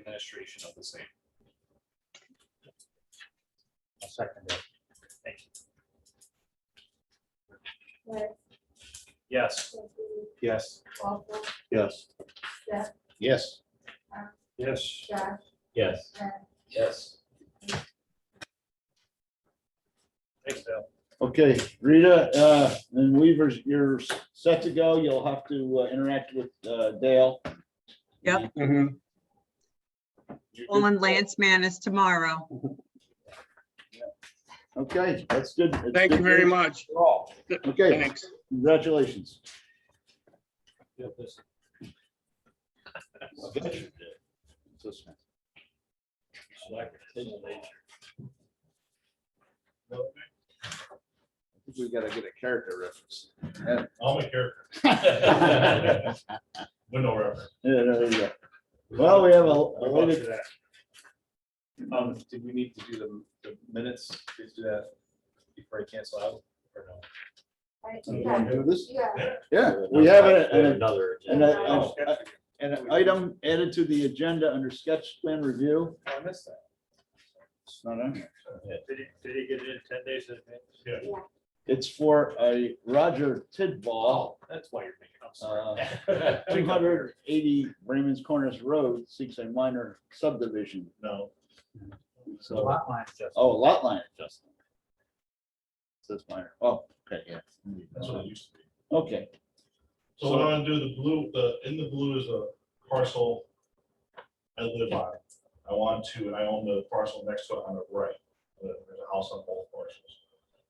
administration of the same. I'll second that. Yes. Yes. Yes. Walpole, Yes. Yes. Yes. Yes. Josh, Yes. Ed. Yes. Thanks, Dale. Okay, Rita, uh, and Weaver's, you're set to go. You'll have to uh, interact with, uh, Dale. Yep. Mm-hmm. You're Well, good. and Lance Man is tomorrow. Okay, that's good. It's Thank you good very news much. for all. Okay, Thanks. congratulations. We've got to get a character reference. All my character. Window reference. Yeah, there you go. Well, we have a- a I'll lady, do that. Um, did we need to do the, the minutes, please do that before I cancel out, or no? Right, you you wanna got- do this? you got- Yeah, we have a- an Another. And I- Oh, I- And an item added to the agenda under sketch plan review. Oh, I missed that. It's not on here. Did he, did he get it in ten days? in advance? Yeah. It's for a Roger Tidball, That's why you're making up. uh, two hundred eighty Raymond's Corners Road, seeks a minor subdivision. No. So, oh, lot line adjustment. Says minor, oh, okay, yeah. That's what it used to be. Okay, So what I'm gonna do, the blue, the, in the blue is a parcel I live on. I want to, and I own the parcel next to it on the right. There's a house on both parcels.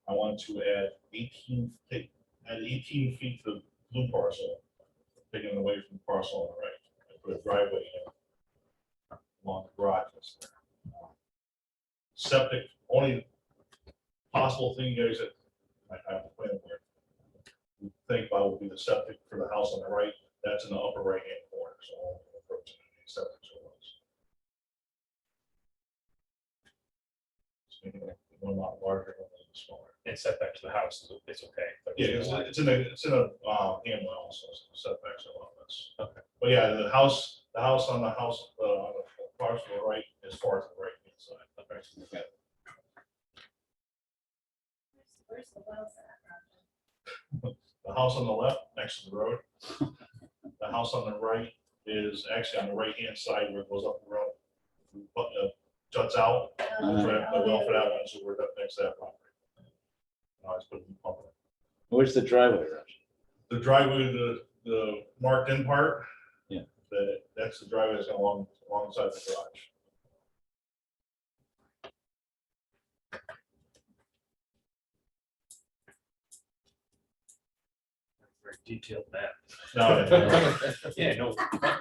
I want to add eighteen, take- add eighteen feet to the blue parcel, taking it away from the parcel on the right. I Put a driveway in along the garage. that's there. Septic, only possible thing you guys that I, I have to plan for think about would be the septic for the house on the right, that's in the upper right-hand corner, so. I'll approach it and septic so it's- Just making it One lot larger, one lot smaller. And setbacks to the house, is- it's okay. but- Yeah, it's, it's in a, it's in a, uh, hamlet also, so setbacks are a lot less. Okay. But yeah, the house, the house on the house, uh, on the parcel to the right, as far as the right hand side. Okay. Where's the wells at? The house on the left, next to the road. The house on the right is actually on the right-hand side where it goes up the road. But, uh, juts out, Oh, That's right, yeah. the well for that one, so we're up next to that property. Uh, it's been pumped. where's the driveway, Roger? The driveway, the, the marked in part. Yeah. That, that's the driveway that's along, alongside the garage. Very detailed map. No, no, no. Yeah, no.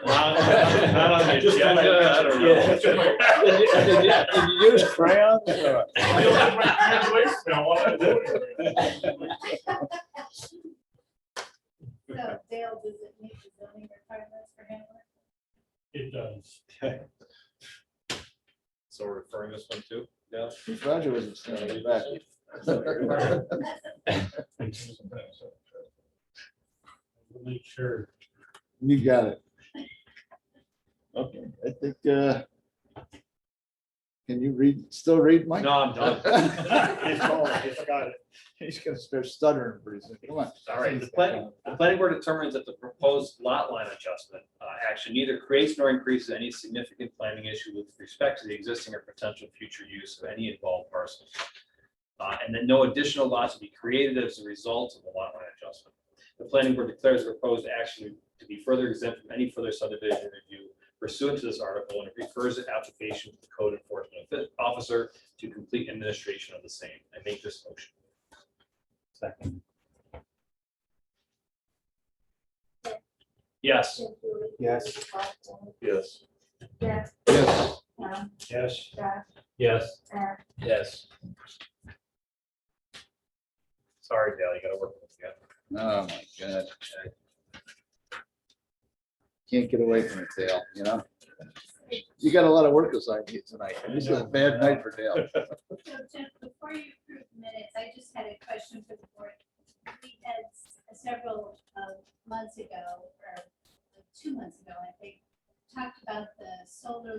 not on the Just agenda, I don't know. Did you use crayons? or- I don't have my graduation, I wanna do it. So Dale, does it meet the zoning requirements for Hamlet? It does. So we're referring this one too? Yeah. Roger was standing back. Make sure. You got it. Okay, I think, uh, can you read, still read, Mike? No, I'm done. It's all right, it's got it. He's gonna start stuttering pretty soon. Come on. All right. The planning, the planning board determines that the proposed lot line adjustment uh, action neither creates nor increases any significant planning issue with respect to the existing or potential future use of any involved parcels. Uh, And then no additional lots will be created as a result of the lot line adjustment. The planning board declares the proposed action to be further exempt from any further subdivision review pursuant to this article, and it refers the application to the code enforcement officer to complete administration of the same. I make this motion. Second. Yes. Including Yes. Walpole, Yes. Yes, Yes. Tom, Yes. Josh, Yes. Ed. Yes. Sorry, Dale, you gotta work with me. Oh, my God. Can't get away from it, Dale, you know? You got a lot of work assigned to you tonight. This is a bad night for Dale. So Jim, before you approve minutes, I just had a question for the board. We had s- several um, months ago, or two months ago, I think, talked about the solar